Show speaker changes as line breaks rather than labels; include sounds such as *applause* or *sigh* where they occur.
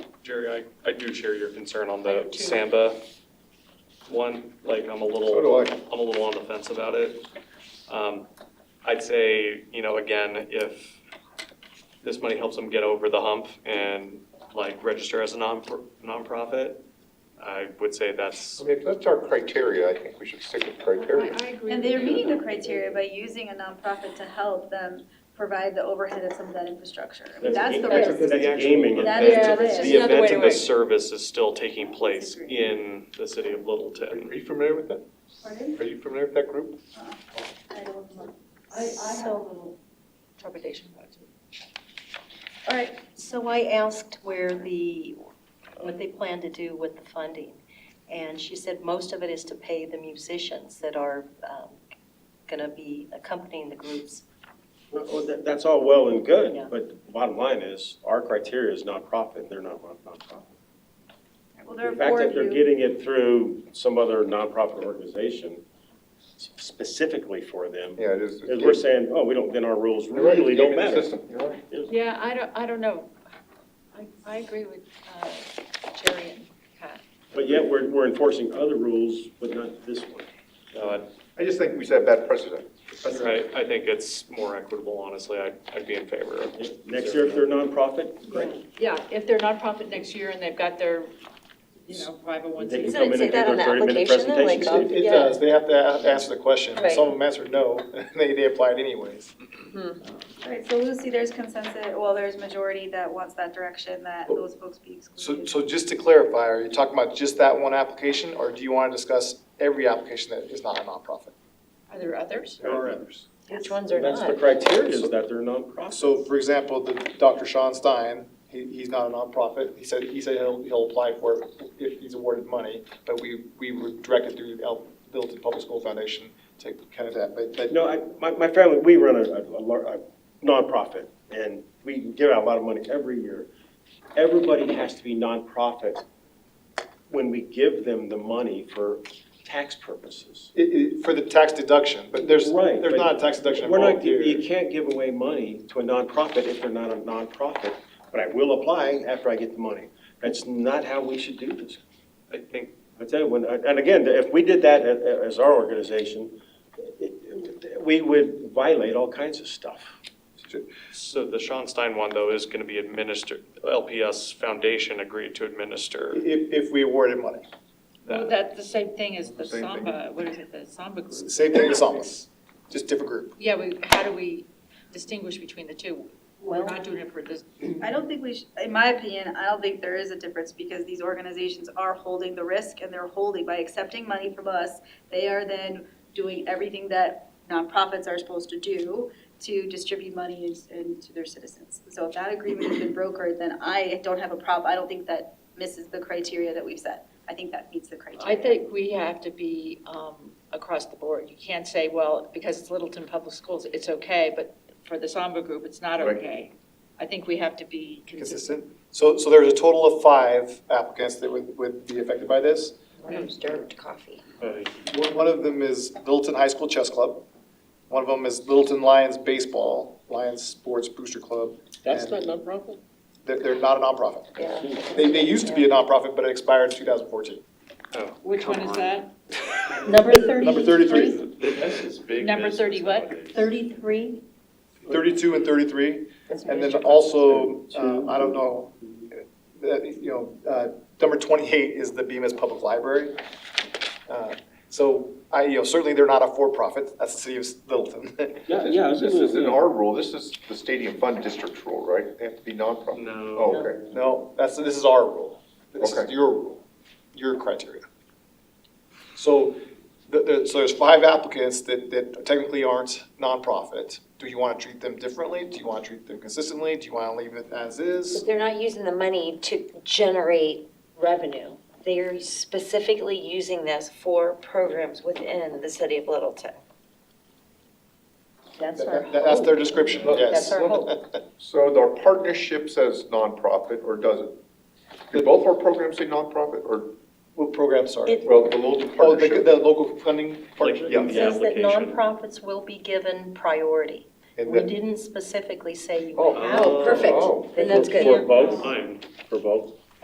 Jerry, I, I do share your concern on the Samba one. Like, I'm a little,
So do I.
I'm a little on the fence about it. Um, I'd say, you know, again, if this money helps them get over the hump and like register as a non nonprofit, I would say that's,
I mean, if that's our criteria, I think we should stick with criteria.
I agree
And
with
they're
you.
meeting the criteria by using a nonprofit to help them provide the overhead of some of that infrastructure. I mean, That's the
That's a-
risk.
that's a gaming
That is
event.
the
Yeah,
risk.
that's
the
another way
event
to
and the
work.
service is still taking place
Disagree.
in the city of
Are
Littleton.
you familiar with that?
Pardon?
Are you familiar with that group?
I don't know.
I, I have a little trepidation about it. All right, so I asked where the, what they plan to do with the funding. And she said most of it is to pay the musicians that are going to be accompanying the groups.
Well, that- That's all well and good,
Yeah.
but the bottom line is, our criteria is nonprofit, they're not non- nonprofit.
Well, there are
The fact
four
that
of
they're
you.
getting it through some other nonprofit organization specifically for them,
Yeah, it is.
is we're saying, oh, we don't, then our rules
You're right,
really don't
gaming the
matter.
system, You're right.
Yeah, I don't, I don't know. I, I agree with uh, Jerry and Pat.
But yet, we're, we're enforcing other rules, but not this one.
No, I-
I just think we set a bad precedent.
Right, I think it's more equitable, honestly, I'd, I'd be in favor of.
Next year, if they're nonprofit, great.
Yeah, if they're nonprofit next year and they've got their, you know,
They
501c.
Doesn't
can
it
come in
say that
and do their
on the
30-minute
application, though,
presentation,
like, um,
Steve.
It
Yeah.
does, they have to a- ask the question,
Right.
some of them answered no, *laughs* they, they applied anyways.
All right, so Lucy, there's consensus, well, there's majority that wants that direction, that those folks be
So,
excluded.
so just to clarify, are you talking about just that one application, or do you want to discuss every application that is not a nonprofit?
Are there others?
Uh,
There are others.
Which ones are
That's the
not?
criteria, is that they're nonprofit.
So for example, the, Dr. Sean Stein, he, he's not a nonprofit, he said, he said he'll, he'll apply for it if he's awarded money, but we, we were directed through El, Littleton Public School Foundation to kind of that, but, but
No, I, my, my family, we run a, a, lar- a nonprofit, and we give out a lot of money every year. Everybody has to be nonprofit when we give them the money for tax purposes.
it, it, for the tax deduction, but there's,
Right,
there's
but
not a tax deduction
We're not,
involved
gi-
here.
you can't give away money to a nonprofit if they're not a nonprofit, but I will apply after I get the money. That's not how we should do this.
I think,
I tell you, when, and again, if we did that a- a- as our organization, it- it- we would violate all kinds of stuff.
so the Sean Stein one, though, is gonna be administered, LPS Foundation agreed to administer
If, if we awarded money.
Well,
that.
that's the same thing as the
Same thing.
Samba, what is it, the Samba group?
Same thing with Sambas, just different group.
Yeah, we, how do we distinguish between the two? We're
Well-
not doing it for this,
I don't think we should, in my opinion, I don't think there is a difference because these organizations are holding the risk and they're holding, by accepting money from us, they are then doing everything that nonprofits are supposed to do to distribute money and- and to their citizens. So if that agreement has been brokered, then I don't have a problem, I don't think that misses the criteria that we've set. I think that meets the
I
criteria.
think we have to be um, across the board. You can't say, well, because it's Littleton Public Schools, it's okay, but for the Samba group, it's not
Right.
okay. I think we have to be consistent.
Consistent. So, so there's a total of five applicants that would, would be affected by this.
One of them's Dermot Coffee.
One one of them is Littleton High School Chess Club. One of them is Littleton Lions Baseball, Lions Sports Booster Club. That's not
nonprofit?
They're, they're not a nonprofit.
Yeah.
They, they used to be a nonprofit, but it expired in 2014.
Oh,
Which one
come
is
on.
that?
Number 33.
Number 33,
This is big
Number
business
30 what?
nowadays.
33?
32 and 33. And then also, uh, I don't know, uh, you know, uh, number 28 is the Bemis Public Library. Uh, So I, you know, certainly they're not a for-profit, that's the city of Littleton. *laughs*
Yeah,
This-
yeah,
This isn't our rule, this is the stadium fund district's rule, right? They have to be nonprofit.
No,
Oh, okay.
No, that's, this is our rule. This is
Okay.
your rule, your criteria. So, the- the- so there's five applicants that, that technically aren't nonprofit. Do you want to treat them differently? Do you want to treat them consistently? Do you want to leave it as is?
But they're not using the money to generate revenue. They're specifically using this for programs within the city of Littleton. That's our
That- That's their
hope.
description, yes.
That's our hope.
So our partnership says nonprofit, or does it? Do both our programs say nonprofit, or,
*laughs* What program, sorry?
It-
well, the Littleton
Oh, the,
partnership?
the local funding
like,
partnership?
in
It
the
says that
application.
nonprofits will be given priority.
And
We
then,
didn't specifically say you
Oh,
have.
oh,
Then that's good.
For both?
Fine.
For both?